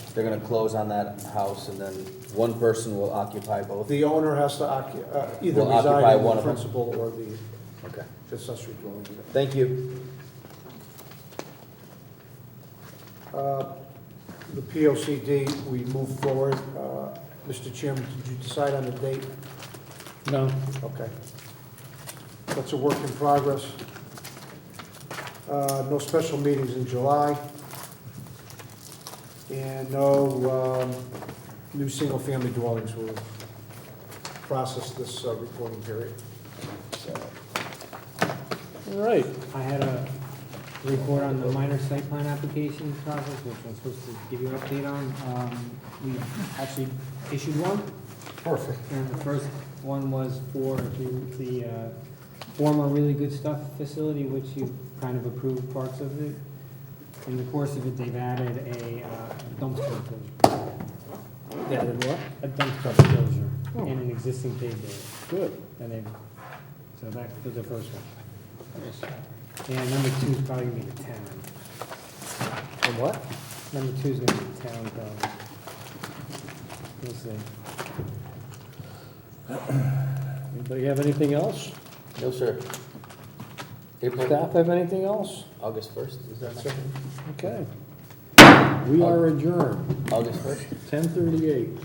They're gonna close on that house and then one person will occupy both? The owner has to occu- uh, either Will occupy reside in one the of them. principal or the Okay, accessory dwelling. thank you. Uh, The P O C D, we move forward. Uh, Mr. Chairman, did you decide on the date? No, Okay. That's a work in progress. Uh, No special meetings in July. And no um, new single-family dwellings will process this uh, reporting period. all right. I had a report on the minor site plan application process, which I'm supposed to give you an update on. Um, We actually issued one, Perfect. and the first one was for the- the uh, former Really Good Stuff facility, which you kind of approved parts of it. In the course of it, they've added a uh, dumpster closure. They added what? A dumpster closure in an existing paved area. Good. And then, so that was the first one. And number two is probably gonna be the town. And what? Number two is gonna be the town probably. We'll see. Anybody have anything else? No, sir. April, Staff have anything else? August first, is that second? Okay. We are adjourned, August first? ten thirty-eight.